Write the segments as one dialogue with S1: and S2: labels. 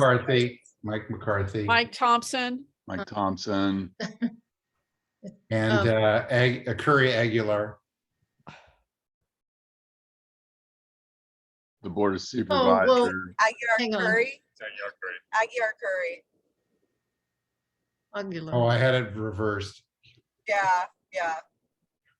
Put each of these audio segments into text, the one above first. S1: McCarthy, Mike McCarthy,
S2: Mike Thompson,
S3: Mike
S4: Uh-huh.
S3: Thompson,
S1: and uh, Ag- uh, Curry Aguilar.
S3: the Board of
S4: Oh, well,
S3: Supervisors,
S4: Hang
S5: Aguirre
S4: on.
S5: Curry. Aguirre Curry.
S4: Aguilar.
S1: Oh, I had it reversed.
S5: Yeah, yeah.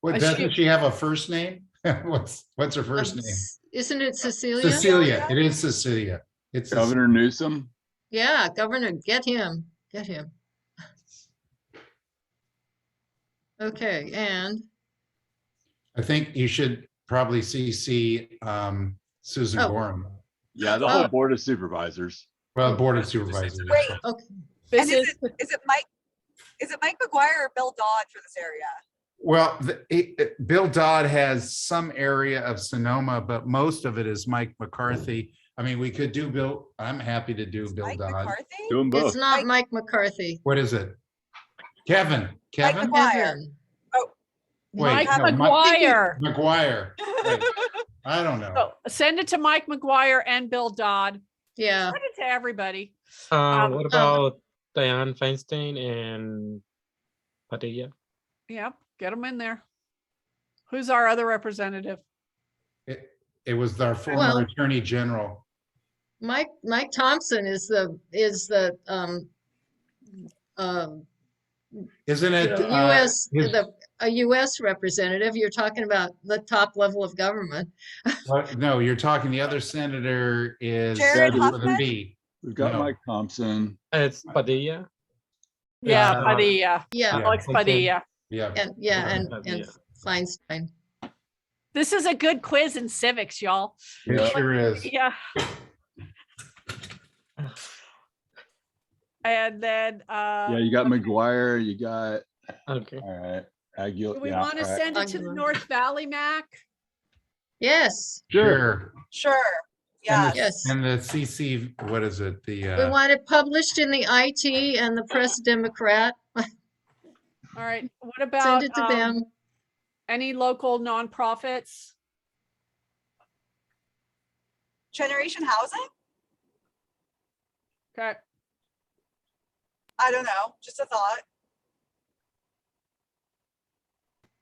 S1: What,
S2: I
S1: doesn't
S2: should-
S1: she have a first name? What's, what's her first
S4: Um,
S1: name?
S4: s- Isn't it Cecilia?
S1: Cecilia. It is Cecilia. It's, Cec-
S3: Governor Newsom,
S4: Yeah, Governor, get him, get him. Okay, and,
S1: I think you should probably CC um, Susan
S4: Oh.
S1: Gorham.
S3: yeah, the whole
S4: Oh.
S3: Board of Supervisors.
S1: Well, Board of Supervisors.
S5: Wait,
S4: okay,
S2: this
S5: And is
S2: is,
S5: it, is it Mike, is it Mike McGuire or Bill Dodd for this area?
S1: Well, the- he- uh, Bill Dodd has some area of Sonoma, but most of it is Mike McCarthy. I mean, we could do Bill, I'm happy to do Bill
S5: Mike
S1: Dodd.
S5: McCarthy?
S3: Do them
S4: it's
S3: both.
S4: not Mike McCarthy.
S1: What is it? Kevin, Kevin
S5: McGuire.
S4: Evan.
S1: Wait,
S2: Mike
S1: no, Mike-
S2: McGuire.
S1: McGuire. Wait, I don't know.
S4: Oh.
S2: So Send it to Mike McGuire and Bill Dodd.
S4: Yeah,
S2: Send it to everybody.
S6: Uh,
S2: Um,
S6: what about Diane Feinstein and Padilla?
S2: Yep, get them in there. Who's our other representative?
S1: It- It was our
S4: Well-
S1: former Attorney General.
S4: Mike, Mike Thompson is the, is the, um, um,
S1: Isn't it? uh,
S4: US,
S1: his-
S4: the, a US representative, you're talking about the top level of government.
S1: what- No, you're talking, the other senator is.
S5: Jared
S1: starts with a
S5: Huffman?
S1: B.
S3: We've got
S1: No.
S3: Mike Thompson,
S6: It's Padilla.
S2: Yeah,
S6: Yeah.
S2: Padilla,
S4: Yeah,
S1: Yeah.
S2: Alex
S6: okay.
S2: Padilla.
S1: Yeah.
S4: and, yeah, and,
S6: That'd be
S4: and
S6: it.
S4: Feinstein.
S2: This is a good quiz in civics, y'all.
S1: It sure is.
S2: Yeah. And then, uh,
S3: yeah, you got McGuire, you got,
S6: Okay.
S3: all right.
S2: do
S3: Aguilar.
S2: we want to send it to the
S4: Aguilar.
S2: North Valley, Mac?
S4: Yes,
S1: Sure.
S5: Sure, yeah.
S1: And the-
S4: yes.
S1: And the CC, what is it? The,
S4: We
S1: uh,
S4: want it published in the IT and the Press Democrat.
S2: All right, what
S4: Send
S2: about
S4: it to
S2: um,
S4: them.
S2: any local nonprofits?
S5: Generation Housing?
S2: Okay,
S5: I don't know, just a thought.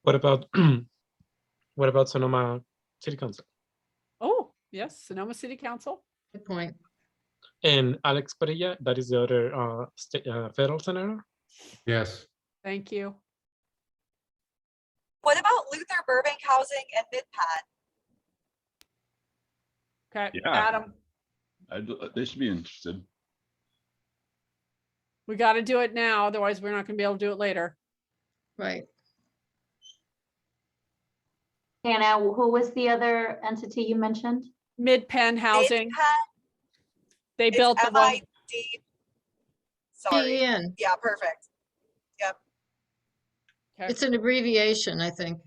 S6: What about what about Sonoma City Council
S2: oh, yes, Sonoma City Council.
S4: Good point.
S6: and Alex Padilla? That is the other uh, state, uh, federal senator.
S1: yes.
S2: Thank you.
S5: What about Luther Burbank Housing and MidPat?
S2: Okay,
S3: Yeah.
S2: Adam,
S3: I'd- uh, They should be interested.
S2: we got to do it now, otherwise we're not going to be able to do it later.
S4: Right.
S7: Hannah, who was the other entity you mentioned?
S2: Mid-Penn Housing, they built the one.
S5: MID.
S4: P E
S5: Sorry,
S4: N.
S5: yeah, perfect.
S2: Okay.
S4: It's an abbreviation, I think.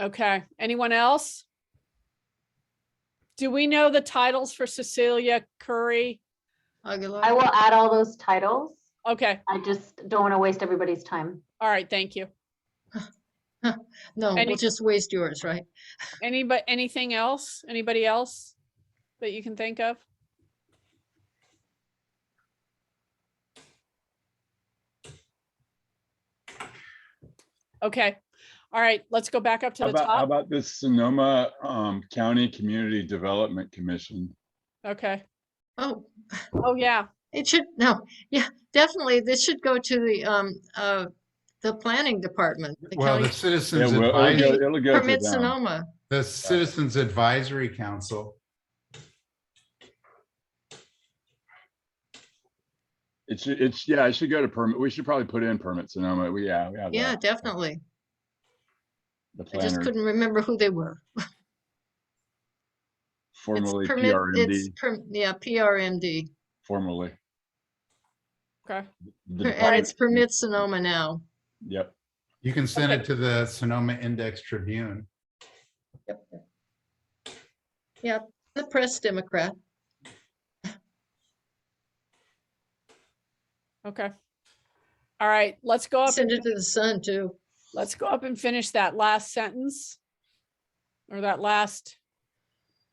S2: Okay, anyone else? Do we know the titles for Cecilia Curry?
S4: Aguilar.
S7: I will add all those titles.
S2: Okay,
S7: I just don't want to waste everybody's time.
S2: all right, thank you.
S4: No,
S2: any-
S4: we'll just waste yours, right?
S2: Anybody, anything else? Anybody else that you can think of? Okay, all right, let's go back up to
S3: How
S2: the
S3: about, how
S2: top.
S3: about this Sonoma um, County Community Development Commission?
S2: Okay,
S4: Oh,
S2: oh, yeah,
S4: it should, no, yeah, definitely. This should go to the, um, uh, the planning department. the
S1: Well, the
S4: county
S3: Yeah,
S1: Citizens
S3: well, it'll
S1: Advisory,
S3: go- it'll go to
S4: Permit
S3: them.
S4: Sonoma.
S1: the Citizens Advisory Council.
S3: It should, it's, yeah, it should go to permit. We should probably put in permit Sonoma. We, yeah, we have
S4: Yeah,
S3: that,
S4: definitely.
S3: the
S4: I just
S3: planner
S4: couldn't remember who they were. It's
S3: formerly
S4: permit, it's,
S3: PRMD,
S4: per- yeah, PRMD.
S3: formerly.
S2: okay,
S3: the
S4: Per- And
S3: department-
S4: it's permit Sonoma now.
S3: Yep.
S1: You can send
S2: Okay.
S1: it to the Sonoma Index Tribune.
S4: Yeah, the Press Democrat.
S2: okay. All right, let's go up.
S4: Send it to the Sun too.
S2: Let's go up and finish that last sentence. Or that last